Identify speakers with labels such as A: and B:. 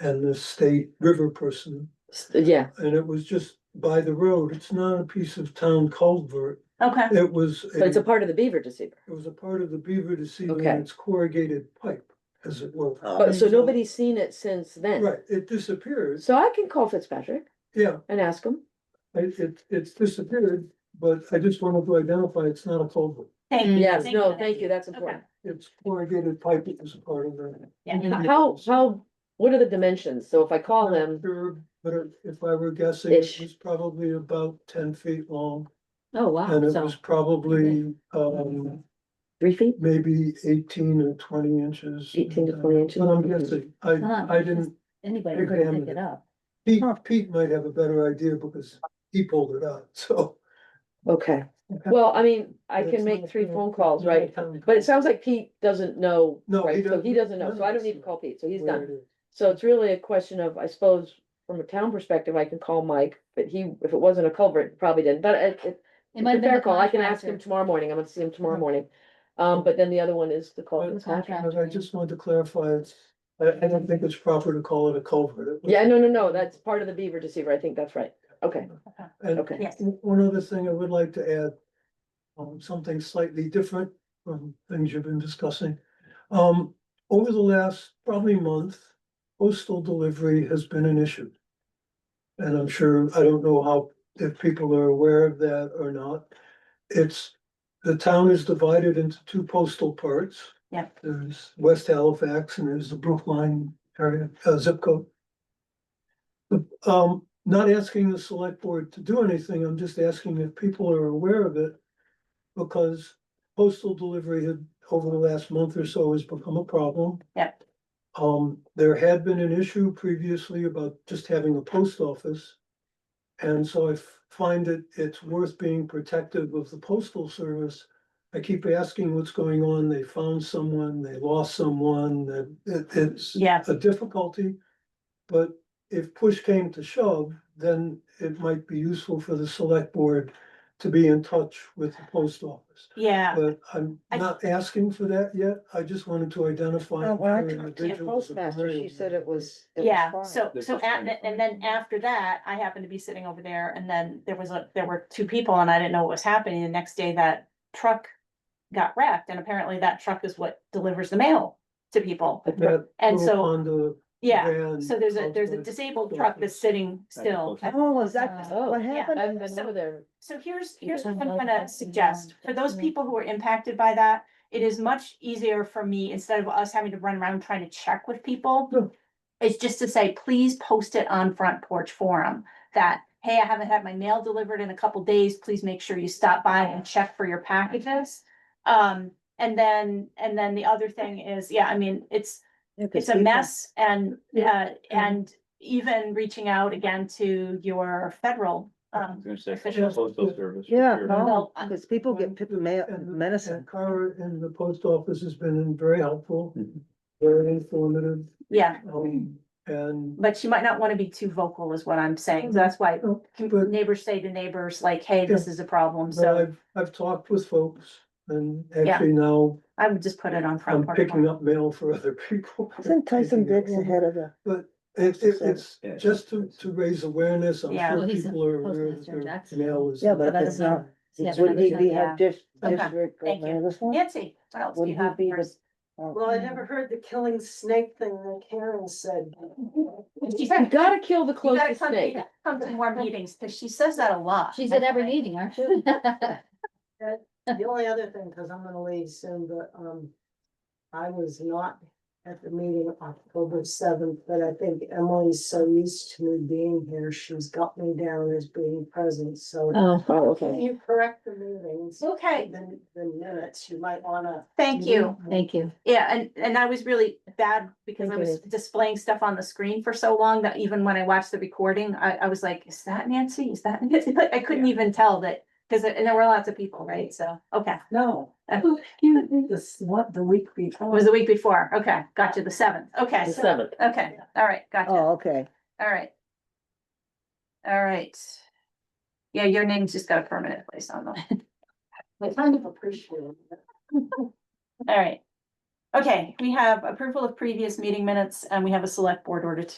A: and the state river person.
B: S- Yeah,
A: And it was just by the road. It's not a piece of town culvert.
C: Okay,
A: It was, a-
B: but it's a part of the beaver deceiver.
A: it was a part of the beaver deceiver
B: Okay. Oh.
A: and its corrugated pipe, as it were.
B: But so nobody's seen it since then.
A: Right, it disappears.
B: So I can call Fitzpatrick
A: Yeah,
B: and ask him.
A: it, it, it's disappeared, but I just wanted to identify it's not a culvert.
C: thank you.
B: Yes,
C: for
B: no,
C: that.
B: thank you, that's
C: Okay.
B: important.
A: It's corrugated pipe that was part of the
C: Yeah,
B: How, how, what are the dimensions? So if I call him,
A: curb, but if I were guessing, it
B: Ish.
A: was probably about ten feet long.
B: oh wow,
A: And it
B: so
A: was probably, um,
B: three feet,
A: maybe eighteen or twenty inches. Uh,
B: eighteen to twenty inches.
A: But I'm guessing, I, I didn't,
D: Anybody
A: Big
D: could
A: family.
D: pick it up.
A: Pete, Pete might have a better idea because he pulled it out, so.
B: Okay, well, I mean, I
A: But
B: can
A: it's
B: make
A: not
B: three
A: gonna-
B: phone calls,
A: not a
B: right?
A: town
B: But it
A: council
B: sounds like Pete doesn't know,
A: No, he
B: right, so he
A: doesn't-
B: doesn't
A: none
B: know,
A: of
B: so I
A: us
B: don't need to
A: know.
B: call Pete, so he's
A: where
B: done.
A: it is.
B: So it's really a question of, I suppose, from a town perspective, I can call Mike, but he, if it wasn't a culvert, probably didn't, but it, it.
D: It might
B: It's a
D: have been
B: fair
D: the
B: call, I can ask him
D: contractor.
B: tomorrow morning, I'm gonna see him tomorrow
A: Yeah.
B: morning. Um, but then the other one is the
A: But-
B: call.
D: Contractor.
A: But I just wanted to clarify, it's, I, I don't think it's proper to call it a culvert. It was-
B: Yeah, no, no, no, that's part of the beaver deceiver, I think that's right, okay,
A: And
B: okay.
C: Yes.
A: w- one other thing I would like to add, um, something slightly different from things you've been discussing. Um, over the last probably month, postal delivery has been an issue. And I'm sure, I don't know how, if people are aware of that or not. It's, the town is divided into two postal parts.
C: Yep.
A: There's West Halifax and there's the Brookline area, uh, zip code. The- Um, not asking the select board to do anything, I'm just asking if people are aware of it. Because postal delivery had, over the last month or so, has become a problem.
C: Yep.
A: Um, there had been an issue previously about just having a post office. And so I f- find it, it's worth being protective of the postal service. I keep asking what's going on, they found someone, they lost someone, that it- it's
C: Yeah.
A: a difficulty. But if push came to shove, then it might be useful for the select board to be in touch with the post office.
C: Yeah,
A: But I'm
C: I-
A: not asking for that yet, I just wanted to identify.
E: Oh, well, I talked
A: for
E: to the
A: individuals and
E: postmaster, she
A: areas.
E: said it was. it was
C: yeah,
E: fine.
C: so,
F: They're
C: so
F: just
C: at,
F: trying to
C: and then after that, I happened to be sitting over there and then there was a, there were two people and I didn't know what was happening. The next day that truck got wrecked and apparently that truck is what delivers the mail to people.
A: That
C: And
A: little
C: so,
A: Honda
C: yeah,
A: van
C: so there's a, there's a
A: outside.
C: disabled truck that's sitting still.
E: Oh, is that
D: Uh,
E: what
B: yeah. I
E: happened?
B: haven't been over there,
C: So here's, here's
D: turn
C: what I'm
D: both
C: gonna
D: lights and
C: suggest,
D: on.
C: for those people who are impacted by that, it is much easier for me, instead of us having to run around trying to check with
A: Sure.
C: people. It's just to say, please post it on Front Porch Forum, that, hey, I haven't had my mail delivered in a couple days, please make sure you stop by and check for your packages. Um, and then, and then the other thing is, yeah, I mean, it's, it's a mess and, uh, and even reaching out again to your federal, um,
F: gonna say,
C: officials.
F: postal service. for
E: Yeah,
F: sure.
C: Well,
E: no,
C: I-
E: because people get pip- ma-
A: And the-
E: medicine.
A: And Cara in the post office has been very helpful,
F: Mhm.
A: very informative,
C: yeah.
A: um, and.
C: But she might not wanna be too vocal is what I'm saying, so that's why
A: Mm-hmm. But-
C: neighbors say to neighbors, like, hey, this is a problem,
A: But
C: so
A: I've, I've talked with folks and
C: Yeah.
A: actually now
C: I would just put it on
A: I'm
C: front porch.
A: picking up mail for other people.
E: Isn't Tyson
A: Taking it
E: Dix
A: home.
E: ahead of the?
A: But it, it, it's
F: Yeah.
A: just to, to raise awareness. I'm
C: Yeah.
A: sure
D: Well, he's a
A: people are aware that
D: postmaster in
A: their
D: Jacksonville.
A: mail is.
E: Yeah, but
D: that's
E: it's not,
D: Yeah, but
E: wouldn't he
D: it's-
E: be
C: yeah.
E: have dis-
C: Okay,
E: district
C: thank you.
E: or this one?
C: Nancy, what else do you
E: Wouldn't
C: have?
E: he be
C: for us?
E: the?
G: Well, I never heard the killing snake thing that Karen said.
C: She
B: you
C: said,
B: gotta kill the
C: You gotta
B: closest
C: come,
B: snake.
C: you gotta come to more meetings, cause she says that a lot.
D: She's at every meeting, aren't you?
G: The only other thing, because I'm gonna leave soon, but, um, I was not at the meeting October seventh, but I think Emily's so used to me being here, she's got me down as being present, so.
B: Oh,
G: If
B: okay.
G: you correct the meetings,
C: Okay,
G: then the minutes, you might wanna.
C: thank you.
D: Thank you.
C: Yeah, and, and I was really bad because I
B: Thank
C: was displaying stuff on the screen for so long that even when I watched the recording, I, I was like, is that Nancy? Is that Nancy? Like, I couldn't even tell that, because, and there were lots of people, right? So, okay.
G: No,
C: Uh,
G: this, what, the week
C: It
G: before.
C: was the week before. Okay, gotcha, the seventh. Okay,
B: The
C: so-
B: seventh,
C: okay, all right, gotcha, all
E: Oh, okay.
C: right. All right. Yeah, your name's just got a permanent place on them.
G: I kind of appreciate it.
C: All right. Okay, we have approval of previous meeting minutes and we have a select board order to